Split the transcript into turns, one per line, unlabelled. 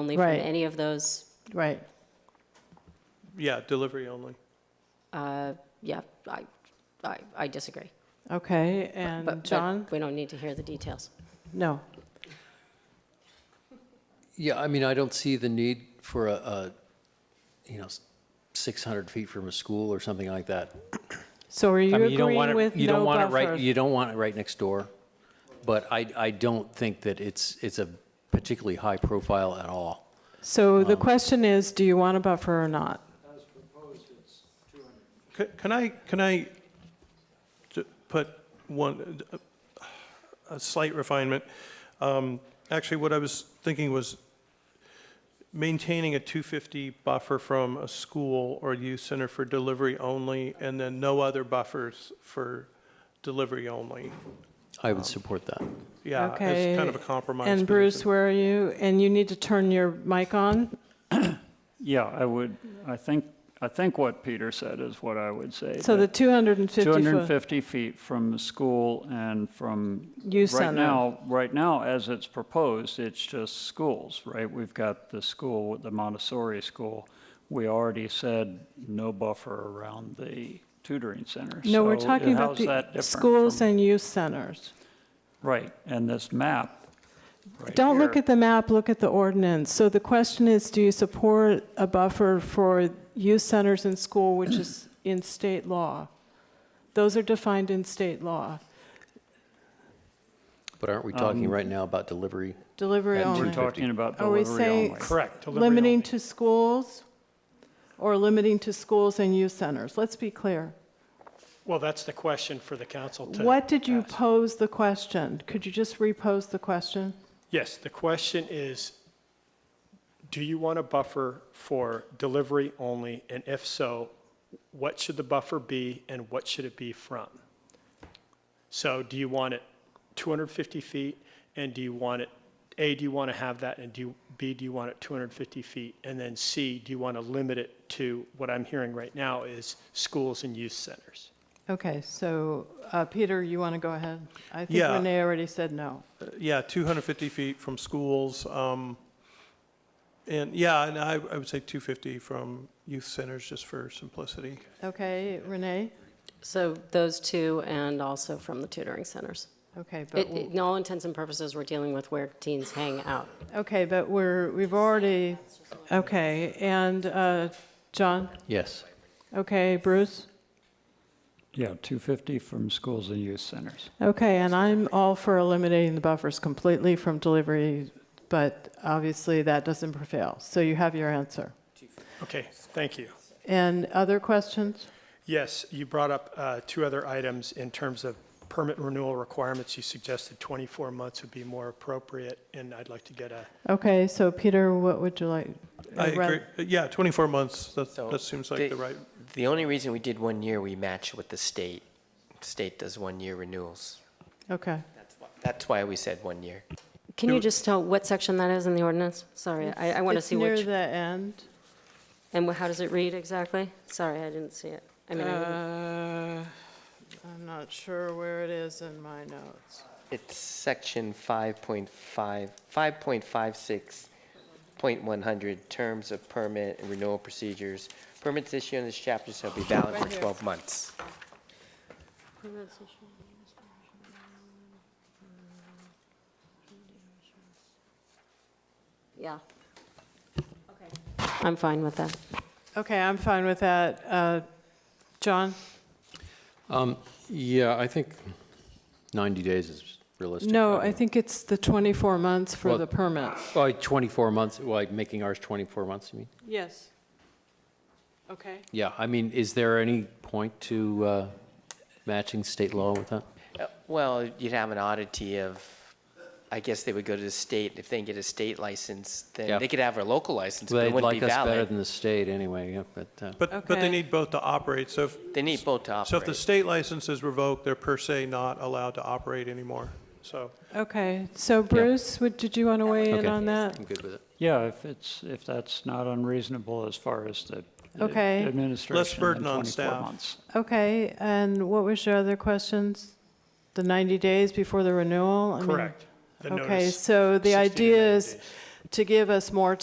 only from
Right.
any of those,
Right.
Yeah, delivery only.
uh, yeah, I, I, I disagree.
Okay,
But-
and
but
John?
We don't need to hear the details.
No.
Yeah, I mean, I don't see the need for a, a, you know, s- 600 feet from a school or something like that.
So are you
I mean, you don't want
agreeing
it,
with
you don't
no
want it right,
buffer?
you don't want it right next door. But I, I don't think that it's, it's a particularly high profile at all.
So
Um,
the question is, do you want a buffer or not?
C- Can I, can I j- put one, a slight refinement? Um, Actually, what I was thinking was maintaining a 250 buffer from a school or youth center for delivery only, and then no other buffers for delivery only.
I would support that.
Yeah,
Okay.
as kind of a compromise.
And Bruce, where are you? And you need to turn your mic on?
Yeah, I would, I think, I think what Peter said is what I would say.
So the
that
250-foot
250 feet from the school and from,
youth
right
center.
now, right now, as it's proposed, it's just schools, right? We've got the school, the Montessori school. We already said no buffer around the tutoring center.
No, we're
So
talking about
how's that
the
different
schools
from-
and youth centers.
Right, and this map. right
Don't look
here-
at the map, look at the ordinance. So the question is, do you support a buffer for youth centers and school, which is in state law? Those are defined in state law.
But aren't we talking
um,
right now about delivery?
Delivery
And we're
only.
We're talking about
Are we
delivery only.
saying limiting to schools or limiting to schools and youth centers? Let's be clear.
Well, that's the question for the council to.
What did you
ask.
pose the question? Could you just repose the question?
Yes, the question is, do you want a buffer for delivery only? And if so, what should the buffer be and what should it be from? So do you want it 250 feet? And do you want it, A, do you want to have that? And do, you- B, do you want it 250 feet? And then C, do you want to limit it to, what I'm hearing right now is schools and youth centers?
Okay, so, uh, Peter, you want to go ahead? I think
Yeah.
Renee already said no.
Yeah, 250 feet from schools. um, And, yeah, and I I would say 250 from youth centers, just for simplicity.
Okay, Renee?
So those two and also from the tutoring centers.
Okay, but,
It, it- in all intents and purposes, we're dealing with where teens hang out.
okay, but we're, we've already, okay, and, uh, John?
Yes.
Okay, Bruce?
Yeah, 250 from schools and youth centers.
Okay, and I'm all for eliminating the buffers completely from delivery, but obviously that doesn't prevail. So you have your answer.
Okay, thank you.
And other questions?
Yes, you brought up uh, two other items in terms of permit renewal requirements. You suggested 24 months would be more appropriate, and I'd like to get a,
Okay, so Peter, what would you like?
I
uh, rather-
agree, yeah, 24 months, that,
So
that seems like
the-
the right,
The only reason we did one year, we match with the state. State does one-year renewals.
Okay,
That's why- That's why we said one year.
Can you just tell what section that is in the ordinance? Sorry, I, I want to
It's
see
near
which,
the end.
and how does it read exactly? Sorry, I didn't see it. I mean, I didn't-
Uh, I'm not sure where it is in my notes.
It's section 5.5, 5.56.100, terms of permit and renewal procedures. Permits issued in this chapter shall be valid for 12 months.
yeah. Okay. I'm fine with that.
Okay, I'm fine with that. Uh, John?
Um, yeah, I think 90 days is realistic.
No, I
mean,
think it's the 24 months for
Well-
the permit.
oh, 24 months, like making ours 24 months, you mean?
Yes. Okay.
Yeah, I mean, is there any point to, uh, matching state law with that?
Uh, Well, you'd have an oddity of, I guess they would go to the state. If they can get a state license,
Yeah.
then they could have a local license, but
They
it wouldn't be
like us better
valid.
than the state anyway, yeah, but, uh,
but, but they
Okay.
need both to operate, so if,
They need both to
so if the
operate.
state license is revoked, they're per se not allowed to operate anymore, so.
Okay, so Bruce, would, did you want to weigh in
Okay.
on that?
I'm good with it.
Yeah, if it's, if that's not unreasonable as far as the the
Okay. Less
administration
burden
in
on
24
staff.
months.
Okay, and what was your other questions? The 90 days before the renewal? I mean-
correct, the
Okay,
notice.
so the
60 to
idea
90
is
days.
to give us more